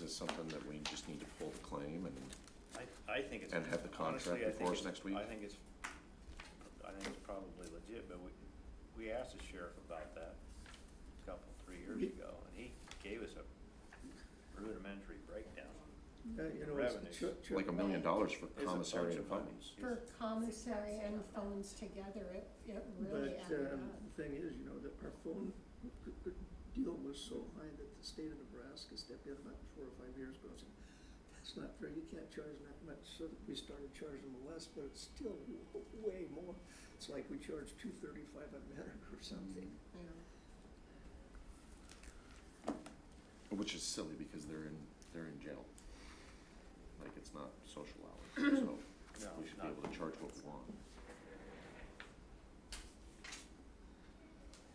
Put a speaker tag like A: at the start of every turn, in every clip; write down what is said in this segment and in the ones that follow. A: this something that we just need to pull the claim and,
B: I, I think it's.
A: And have the contract
B: honestly, I think
A: before us
B: it's-
A: next week?
B: I think it's, I think it's probably legit, but we, we asked the sheriff about that a couple, three years
C: Ye-
B: ago, and he gave us a rudimentary breakdown.
C: Uh, you know, it's
B: Revenues.
C: chu- chu-
A: like a million dollars for
B: It's a
A: commissary
B: bunch
A: and
B: of money.
A: phones.
D: For commissary and phones together, it, it really
C: But,
D: added up.
C: um, the thing is, you know, that our phone c- c- deal was so high that the state of Nebraska stepped in about four or five years ago and said, that's not fair, you can't charge that much, so we started charging them less, but it's still w- way more. It's like we charge two thirty-five a minute or something.
D: you know.
A: Which is silly because they're in, they're in jail. Like, it's not social hours, so
B: No,
A: we should be
B: not-
A: able to charge what we want.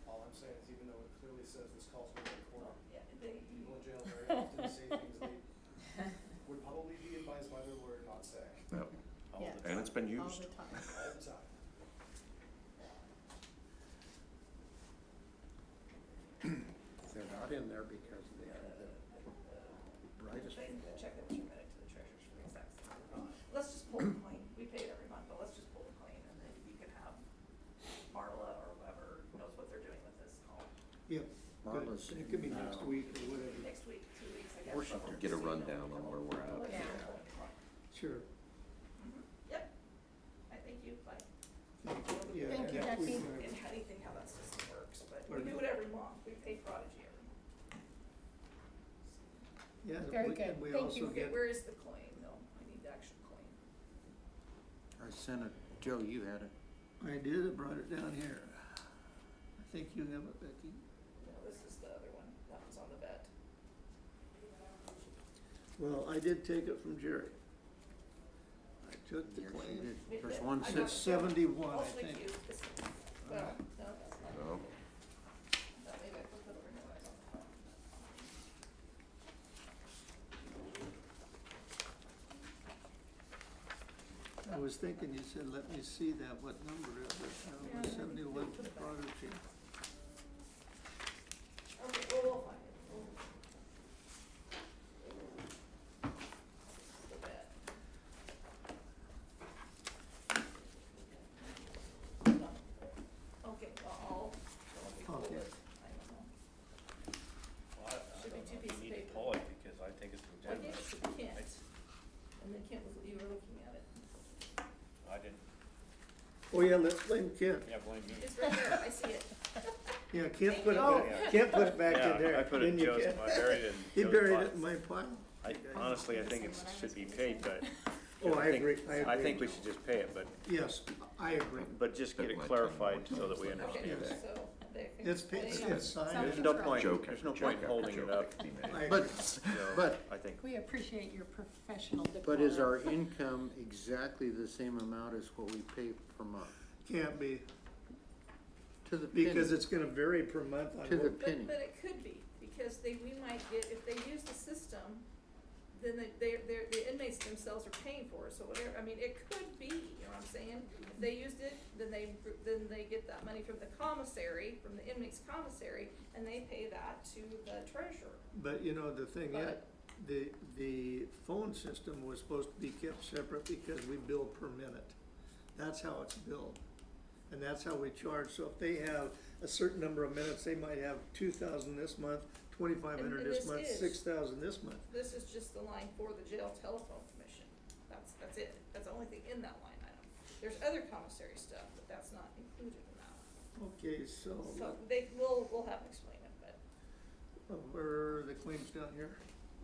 E: All I'm saying is even though it clearly says this calls for a quorum, people in jail very often say things they would probably be advised by their lawyer not say
A: Yep,
B: all the
D: Yeah.
A: and
B: time.
A: it's been
F: um,
D: All
A: used.
D: the time.
E: all the time.
F: They're not in there because they are the brightest
G: They can check that you read it to the treasurer's for the exact same amount. Let's just pull the claim, we pay it every month, but let's just pull the claim and then you can have Marla or whoever knows what they're doing with this call
C: Yep.
F: Marla's
C: It could be
F: in,
C: next
F: uh,
C: week or whatever,
G: next week, two weeks, I guess.
F: Washington.
A: Get a rundown on where we're at.
G: Look at it.
C: sure.
G: Mm-hmm. Yep, I think you, like,
C: Thank you. Yeah,
D: Thank you,
C: next week,
D: Jackie.
C: uh,
G: in anything how that system works, but we do it every month, we pay Prodigy every month.
C: Yeah, and
D: Very
C: we-
D: good.
C: and we
D: Thank
C: also
D: you.
C: get,
G: Where is the claim though? I need the actual claim.
F: I sent it, Joe, you had it.
C: I did, I brought it down here. I think you have it, Becky.
G: No, this is the other one, that one's on the vet.
C: Well, I did take it from Jerry. I took the
F: Yes, you
C: claim.
F: did. There's one
G: I got
C: It's
F: sits,
C: seventy-one, I
G: Also
C: think.
G: you, this, well, no, that's not.
A: No?
G: That maybe I put it over here, I don't know.
C: I was thinking, you said, let me see that, what number it was, uh, it was seventy-one for Prodigy.
G: Okay, well, we'll find it. We'll- The vet. No. Okay, well, I'll, I'll be cool
C: Okay.
G: with, I don't know.
B: Well, I- I
G: Should be
B: don't
G: two
B: know if
G: pieces of
B: You need
G: paper.
B: to pull it because I think it's
G: I
B: legitimate.
G: gave it to the Kent, and then Kent was, you were looking at it.
B: Mm-hmm. I didn't,
C: Oh, yeah, let's blame Kent.
B: yeah, blame me.
G: It's right there, I see it.
C: Yeah, Kent put it
B: Oh.
C: back, Kent put it back
B: Yeah,
C: in there.
B: I put it in
C: didn't you,
B: Joe's,
C: Kent?
B: I buried it
C: He
B: in Joe's
C: buried
B: file.
C: it in my pile.
B: I, honestly, I think it
D: Listen, what I
B: should
D: was
B: be
D: gonna
B: paid,
D: say.
B: but.
C: Oh, I
B: think-
C: agree, I agree.
B: I think we should just pay it, but,
C: Yes, I agree.
B: but just get
A: Spent
B: it
A: my time
B: clarified
A: more
B: so that we
A: times than
B: understand.
G: Okay,
A: Yeah.
G: so they.
C: It's, pa- it's- it's signed.
B: There's no
D: Joke
B: point,
A: Joke
B: there's
A: after
B: no
A: joke
B: point
A: after
B: holding
A: joke
B: it up,
A: can be made.
C: I agree.
F: But,
B: so
F: but,
B: I think,
D: We appreciate your professional decorum.
F: but is our income exactly the same amount as what we pay per month?
C: Can't be,
F: To the penny.
C: because it's gonna vary per month on
F: To the
C: what
F: penny.
G: But, but it could be, because they, we might get, if they use the system, then they, they're, they're, the inmates themselves are paying for it, so whatever, I mean, it could be, you know what I'm saying? If they used it, then they, then they get that money from the commissary, from the inmates commissary, and they pay that to the treasurer.
C: But you know, the thing is,
G: But-
C: the, the phone system was supposed to be kept separate because we bill per minute. That's how it's billed. And that's how we charge. So if they have a certain number of minutes, they might have two thousand this month, twenty-five hundred
G: And- and
C: this
G: this
C: month,
G: is-
C: six thousand this month.
G: This is just the line for the jail telephone commission, that's, that's it, that's the only thing in that line item. There's other commissary stuff, but that's not included in that.
C: Okay, so,
G: So they, we'll, we'll have to explain it, but.
C: uh, where are the claims down here?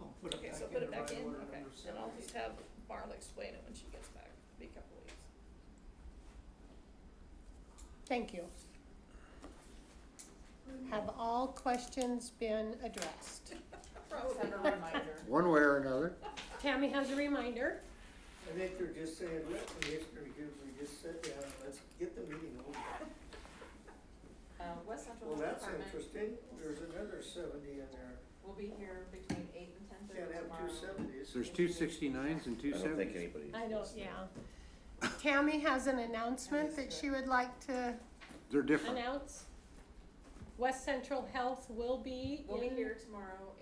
C: I'll put it
G: Okay,
C: back
G: so
C: in
G: put it
C: the
G: back
C: right
G: in,
C: order,
G: okay,
C: number
G: and I'll
C: seven.
G: just have Marla explain it when she gets back, be a couple weeks.
D: Thank you. Have all questions been addressed?
G: Probably.
F: One way or another.
D: Tammy has a reminder.
C: I think they're just saying, let the history do, we just sit down, and let's get the meeting over.
H: Uh, West Central
C: Well,
H: Health
C: that's
H: Department
C: interesting, there's another seventy in there,
H: will be here between eight and ten
C: can't
H: thirty
C: have
H: tomorrow.
C: two seventies.
F: There's two sixty-nines and two
A: I don't think
F: seventies.
A: anybody.
D: I don't, yeah. Tammy has an announcement that she would like to
F: They're different.
D: announce. West Central Health will be
H: We'll be
D: in-
H: here tomorrow,